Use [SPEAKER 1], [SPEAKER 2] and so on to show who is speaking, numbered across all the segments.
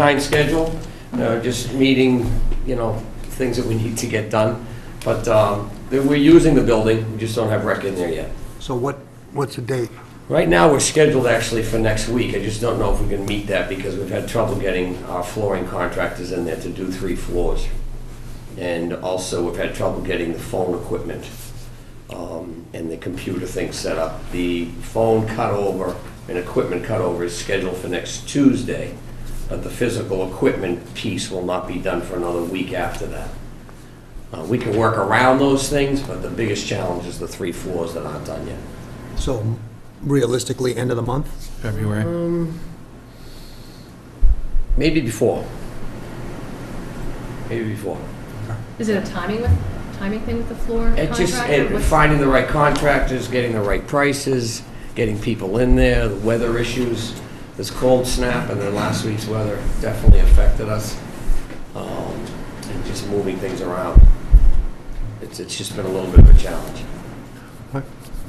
[SPEAKER 1] Fine schedule, uh, just meeting, you know, things that we need to get done. But um, that we're using the building, we just don't have rec in there yet.
[SPEAKER 2] So what, what's the date?
[SPEAKER 1] Right now, we're scheduled actually for next week. I just don't know if we can meet that because we've had trouble getting our flooring contractors in there to do three floors. And also, we've had trouble getting the phone equipment um, and the computer thing set up. The phone cutover and equipment cutover is scheduled for next Tuesday, but the physical equipment piece will not be done for another week after that. Uh, We can work around those things, but the biggest challenge is the three floors that aren't done yet.
[SPEAKER 2] So realistically, end of the month?
[SPEAKER 3] February.
[SPEAKER 1] Maybe before. Maybe before.
[SPEAKER 4] Is it a timing with, timing thing with the floor
[SPEAKER 1] It just,
[SPEAKER 4] contractor?
[SPEAKER 1] it-
[SPEAKER 4] What's-
[SPEAKER 1] finding the right contractors, getting the right prices, getting people in there, the weather issues, this cold snap, and then last week's weather definitely affected us. Um, And just moving things around. It's, it's just been a little bit of a challenge.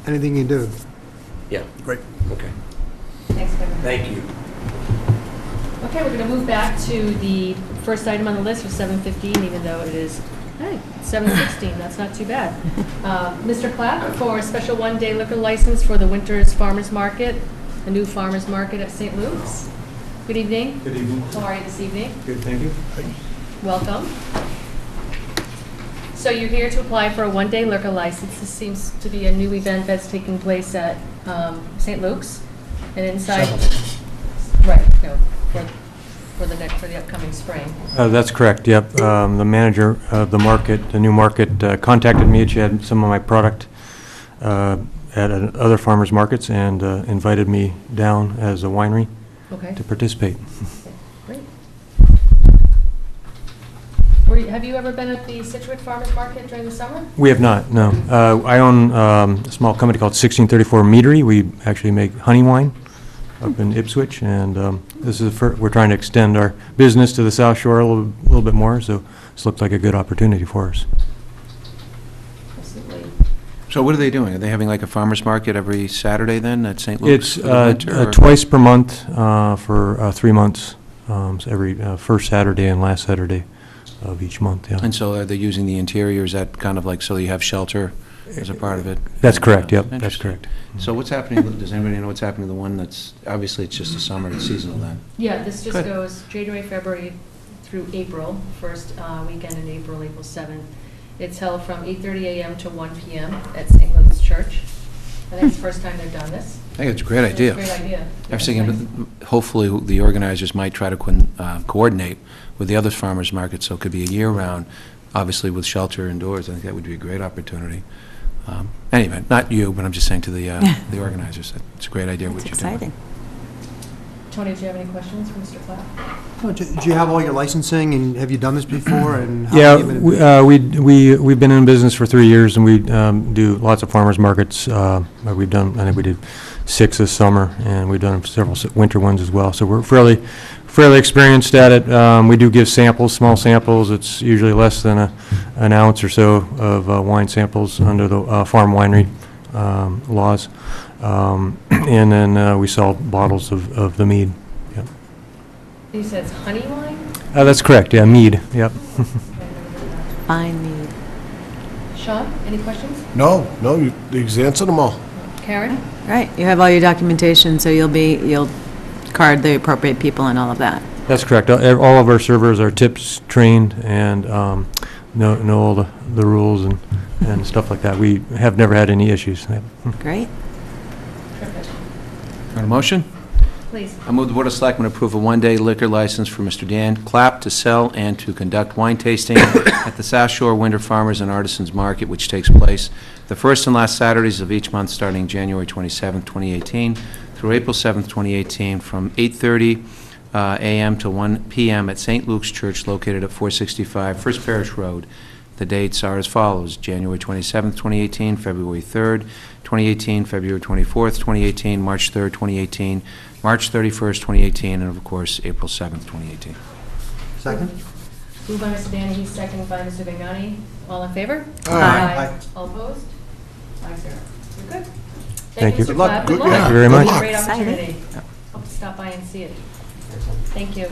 [SPEAKER 2] Anything you do?
[SPEAKER 1] Yeah.
[SPEAKER 2] Great.
[SPEAKER 1] Okay.
[SPEAKER 4] Thanks, Kevin.
[SPEAKER 1] Thank you.
[SPEAKER 4] Okay, we're gonna move back to the first item on the list for seven fifteen, even though it is, hey, seven sixteen, that's not too bad. Uh, Mr. Clapp for a special one-day liquor license for the Winters Farmers Market, the new farmers market at St. Luke's. Good evening,
[SPEAKER 5] Good evening.
[SPEAKER 4] how are you this evening?
[SPEAKER 5] Good, thank you.
[SPEAKER 4] Welcome. So you're here to apply for a one-day liquor license. This seems to be a new event that's taking place at um, St. Luke's and inside. Right, no, for, for the next, for the upcoming spring.
[SPEAKER 6] Uh, That's correct, yep. Um, The manager of the market, the new market, uh, contacted me, she had some of my product uh, at uh, other farmers markets, and uh, invited me down as a winery
[SPEAKER 4] Okay,
[SPEAKER 6] to participate.
[SPEAKER 4] great. Were you- Have you ever been at the Situate Farmers Market during the summer?
[SPEAKER 6] We have not, no. Uh, I own um, a small company called 1634 Meadery. We actually make honey wine up in Ipswich, and um, this is, the fir- we're trying to extend our business to the South Shore a little little bit more, so this looked like a good opportunity for us.
[SPEAKER 4] Absolutely.
[SPEAKER 3] So what are they doing? Are they having like a farmer's market every Saturday then at St. Luke's
[SPEAKER 6] It's
[SPEAKER 3] for the
[SPEAKER 6] uh,
[SPEAKER 3] winter,
[SPEAKER 6] uh,
[SPEAKER 3] or-
[SPEAKER 6] twice per month uh, for uh, three months, um, so every uh, first Saturday and last Saturday of each month, yeah.
[SPEAKER 3] And so are they using the interior, is that kind of like, so you have shelter as a part of it?
[SPEAKER 6] That's correct, yep, that's
[SPEAKER 3] Interesting.
[SPEAKER 6] correct.
[SPEAKER 3] So what's happening, does anybody know what's happening to the one that's, obviously it's just a summer, it's seasonal then?
[SPEAKER 4] Yeah, this just
[SPEAKER 3] Good.
[SPEAKER 4] goes January, February through April, first uh, weekend in April, April 7th. It's held from 8:30 a.m. to 1 p.m. at St. Luke's Church. I think it's the first time they've done this.
[SPEAKER 3] I think it's a great
[SPEAKER 4] It's a
[SPEAKER 3] idea.
[SPEAKER 4] Great idea.
[SPEAKER 3] I was
[SPEAKER 4] Yeah, it's nice.
[SPEAKER 3] thinking, hopefully, the organizers might try to coin- uh, coordinate with the other farmers markets, so it could be a year-round, obviously with shelter indoors, I think that would be a great opportunity. Um, Anyway, not you, but I'm just saying to the, uh, the organizers, it's a great idea what
[SPEAKER 7] It's
[SPEAKER 3] you're doing.
[SPEAKER 7] exciting.
[SPEAKER 4] Tony, do you have any questions for Mr. Platt?
[SPEAKER 2] Oh, Do do you have all your licensing, and have you done this before, and how
[SPEAKER 6] Yeah,
[SPEAKER 2] have you
[SPEAKER 6] we,
[SPEAKER 2] been?
[SPEAKER 6] uh, we, we- we've been in business for three years, and we um, do lots of farmers markets. uh, uh, We've done, I think we did six this summer, and we've done several s- winter ones as well, so we're fairly, fairly experienced at it. Um, We do give samples, small samples, it's usually less than a, an ounce or so of uh, wine samples under the uh, farm winery um, laws. Um, And then uh, we sell bottles of, of the mead.
[SPEAKER 4] He says honey wine?
[SPEAKER 6] Uh, That's correct, yeah, mead, yep.
[SPEAKER 7] Fine mead.
[SPEAKER 4] Sean, any questions?
[SPEAKER 8] No, no, you, he's answered them all.
[SPEAKER 4] Karen?
[SPEAKER 7] Right, you have all your documentation, so you'll be, you'll card the appropriate people and all of that.
[SPEAKER 6] That's correct. All ev- all of our servers are tips trained and um, know know all the the rules and and stuff like that. We have never had any issues. Yep.
[SPEAKER 7] Great.
[SPEAKER 4] Perfect.
[SPEAKER 3] Want a motion?
[SPEAKER 4] Please.
[SPEAKER 3] I move the Board of Selectmen approve a one-day liquor license for Mr. Dan Clapp to sell and to conduct wine tasting at the South Shore Winter Farmers and Artisans Market, which takes place the first and last Saturdays of each month, starting January 27, 2018, through April 7, 2018, from 8:30 uh, a.m. to 1 p.m. at St. Luke's Church located at 465 First Parish Road. The dates are as follows: January 27, 2018, February 3, 2018, February 24, 2018, March 3, 2018, March 31st, 2018, and of course, April 7th, 2018.
[SPEAKER 6] uh,
[SPEAKER 2] Second?
[SPEAKER 4] Moved by Mr. Danahy, seconded by Mr. Vignani. All in favor?
[SPEAKER 7] Aye. Aye.
[SPEAKER 4] All opposed? Five zero. You're good.
[SPEAKER 6] Thank you.
[SPEAKER 4] Mr.
[SPEAKER 6] Good
[SPEAKER 4] Platt.
[SPEAKER 8] luck.
[SPEAKER 4] Good
[SPEAKER 8] Good-
[SPEAKER 4] luck.
[SPEAKER 8] yeah,
[SPEAKER 6] Thank you very good much.
[SPEAKER 7] luck.
[SPEAKER 4] Great
[SPEAKER 7] Exciting.
[SPEAKER 4] opportunity. Hope to stop by and see it. Thank you.